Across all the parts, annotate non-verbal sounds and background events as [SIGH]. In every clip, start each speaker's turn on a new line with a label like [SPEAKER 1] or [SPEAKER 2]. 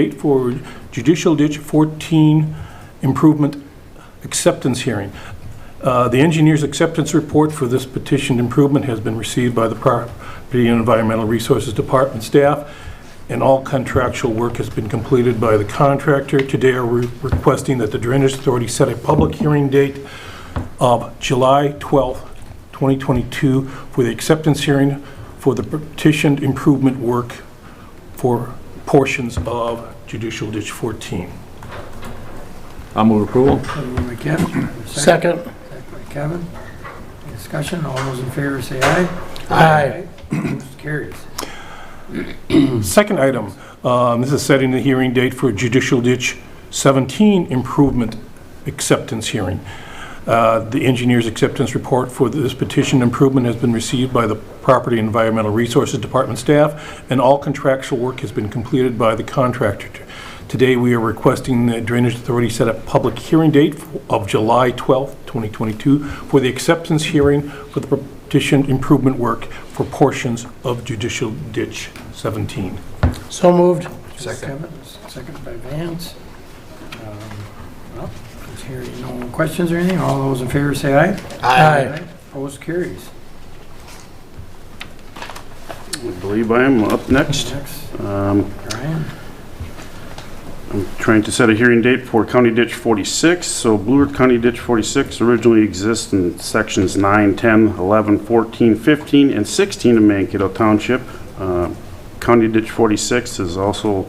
[SPEAKER 1] Date forward Judicial Ditch 14 Improvement Acceptance Hearing. Uh, The engineer's acceptance report for this petitioned improvement has been received by the Property and Environmental Resources Department staff, and all contractual work has been completed by the contractor. Today, we're requesting that the Drainage Authority set a public hearing date of July 12th, 2022, for the acceptance hearing for the petitioned improvement work for portions of Judicial Ditch 14.
[SPEAKER 2] I'll move approval.
[SPEAKER 3] Moved by Kevin. Second by Kevin. Any Discussion, all those in favor say aye.
[SPEAKER 4] Aye.
[SPEAKER 3] Motion carries.
[SPEAKER 1] Second item, um, this is setting the hearing date for Judicial Ditch 17 Improvement Acceptance Hearing. Uh, The engineer's acceptance report for this petition improvement has been received by the Property and Environmental Resources Department staff, and all contractual work has been completed by the contractor. Today, we are requesting the Drainage Authority set a public hearing date of July 12, 2022, for the acceptance hearing for the petition improvement work for portions of Judicial Ditch 17.
[SPEAKER 4] So moved.
[SPEAKER 3] Second. Second by Vance. Um, Well, since here you no questions or anything, all those in favor say aye.
[SPEAKER 4] Aye.
[SPEAKER 3] Opposed carries.
[SPEAKER 5] I believe I am up next.
[SPEAKER 3] Next,
[SPEAKER 5] Um,
[SPEAKER 3] Brian.
[SPEAKER 5] I'm trying to set a hearing date for County Ditch 46. So Blue Earth County Ditch 46 originally exists in sections 9, 10, 11, 14, 15, and 16 of Mankato Township. Uh, County Ditch 46 is also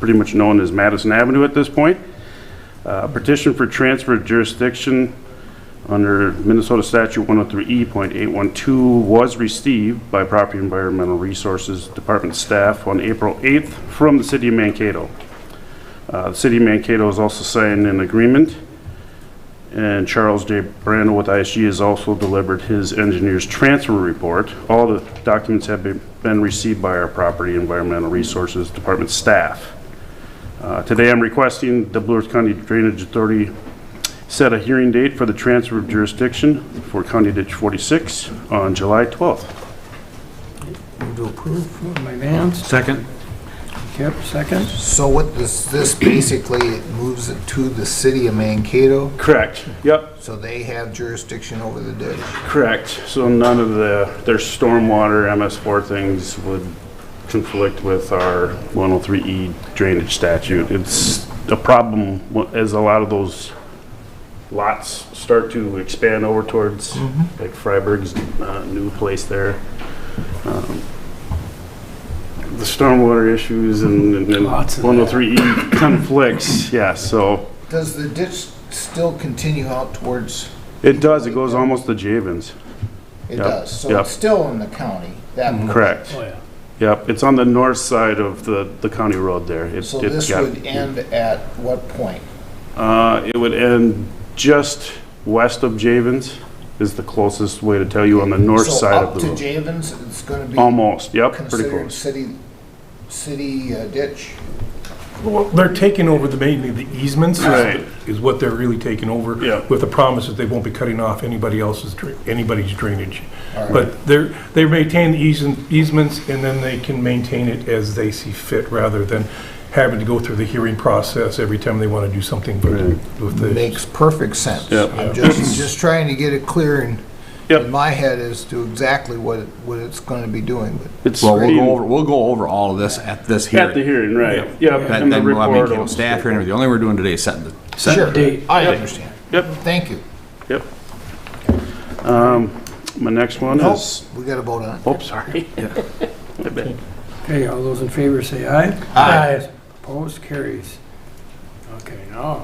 [SPEAKER 5] pretty much known as Madison Avenue at this point. Uh, Petition for transfer of jurisdiction under Minnesota Statute E 103E.812 was received by Property and Environmental Resources Department staff on April 8th from the city of Mankato. Uh, The city of Mankato has also signed an agreement, and Charles J. Brandel with ISG has also delivered his engineer's transfer report. All the documents have been- been received by our Property and Environmental Resources Department staff. Uh, Today, I'm requesting the Blue Earth County Drainage Authority set a hearing date for the transfer of jurisdiction for County Ditch 46 on July 12th.
[SPEAKER 3] Move to approve. Moved by Vance.
[SPEAKER 2] Second.
[SPEAKER 3] Kip, second.
[SPEAKER 6] So what this, this basically it moves it to the city of Mankato,
[SPEAKER 5] Correct. Yep,
[SPEAKER 6] so they have jurisdiction over the ditch.
[SPEAKER 5] correct. So none of the, their stormwater MS4 things would conflict with our 103E E drainage statute. It's a problem wh- as a lot of those lots start to expand over towards,
[SPEAKER 3] Mm-hmm.
[SPEAKER 5] like Freiberg's uh, new place there. Um, The stormwater issues and and then
[SPEAKER 3] Lots of that.
[SPEAKER 5] 103E E conflicts, yeah, so
[SPEAKER 6] Does the ditch still continue out towards,
[SPEAKER 5] it does, it goes almost to Javens.
[SPEAKER 6] it
[SPEAKER 5] Yep,
[SPEAKER 6] does, so
[SPEAKER 5] yep. Mm-hmm.
[SPEAKER 6] it's still in the county, that much.
[SPEAKER 5] Correct.
[SPEAKER 3] Oh, yeah.
[SPEAKER 5] Yep, it's on the north side of the, the county road there. It-
[SPEAKER 6] So
[SPEAKER 5] it
[SPEAKER 6] this
[SPEAKER 5] got-
[SPEAKER 6] would end at what point?
[SPEAKER 5] Uh, it would end just west of Javens is the closest way to tell you on the north
[SPEAKER 6] So
[SPEAKER 5] side of the
[SPEAKER 6] Up to
[SPEAKER 5] road.
[SPEAKER 6] Javens, it's gonna be
[SPEAKER 5] Almost, yep, pretty
[SPEAKER 6] considered
[SPEAKER 5] close.
[SPEAKER 6] city, city uh, ditch?
[SPEAKER 1] Well, they're taking over the, mainly the easements. is-
[SPEAKER 5] Right.
[SPEAKER 1] Is what they're really taking over.
[SPEAKER 5] Yeah.
[SPEAKER 1] With the promise that they won't be cutting off anybody else's, dra- anybody's drainage.
[SPEAKER 6] All right.
[SPEAKER 1] But they're, they maintain the easen- easements, and then they can maintain it as they see fit, rather than having to go through the hearing process every time they want to do something for the- with the
[SPEAKER 6] Makes perfect sense.
[SPEAKER 5] Yep. [CLEARS THROAT]
[SPEAKER 6] I'm just, just trying to get it clear in,
[SPEAKER 5] Yep.
[SPEAKER 6] in my head as to exactly what, it- what it's gonna be doing, but
[SPEAKER 5] It's
[SPEAKER 2] Well, we'll
[SPEAKER 5] being-
[SPEAKER 2] go over, we'll go over all of this at this
[SPEAKER 5] At the
[SPEAKER 2] hearing.
[SPEAKER 5] hearing, right,
[SPEAKER 2] That-
[SPEAKER 5] yep. and the
[SPEAKER 2] Then we'll have
[SPEAKER 5] report Um, will-
[SPEAKER 2] Mankato staff here and everything. The only we're doing today is setting the, setting
[SPEAKER 6] Sure,
[SPEAKER 2] the date.
[SPEAKER 6] I understand.
[SPEAKER 5] Yep.
[SPEAKER 6] Thank you.
[SPEAKER 5] Yep. Um, my next one
[SPEAKER 6] Nope,
[SPEAKER 5] is,
[SPEAKER 6] we got to vote on it.
[SPEAKER 5] oh, sorry. I bet.
[SPEAKER 3] Okay, all those in favor say aye.
[SPEAKER 4] Aye.
[SPEAKER 3] Opposed carries. Okay, now,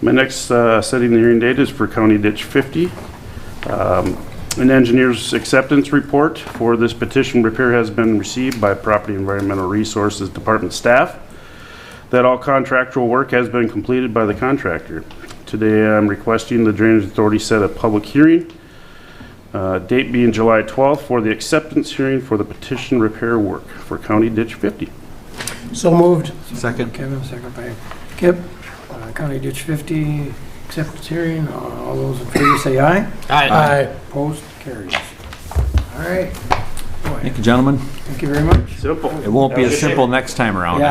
[SPEAKER 5] My next uh, setting the hearing date is for County Ditch 50. Um, An engineer's acceptance report for this petition repair has been received by Property Environmental Resources Department staff. That all contractual work has been completed by the contractor. Today, I'm requesting the Drainage Authority set a public hearing, uh, date being July 12th, for the acceptance hearing for the petition repair work for County Ditch 50.
[SPEAKER 4] So moved.
[SPEAKER 2] Second.
[SPEAKER 3] Kevin, second by Kip, Uh, County Ditch 50, acceptance hearing, Uh, all those in favor say aye.
[SPEAKER 4] Aye.
[SPEAKER 3] Opposed carries. All right, boy, way.
[SPEAKER 2] Thank you, gentlemen.
[SPEAKER 3] Thank you very much.
[SPEAKER 5] Simple.
[SPEAKER 2] It won't be
[SPEAKER 5] Have a
[SPEAKER 2] as
[SPEAKER 5] good day.
[SPEAKER 2] simple next time around.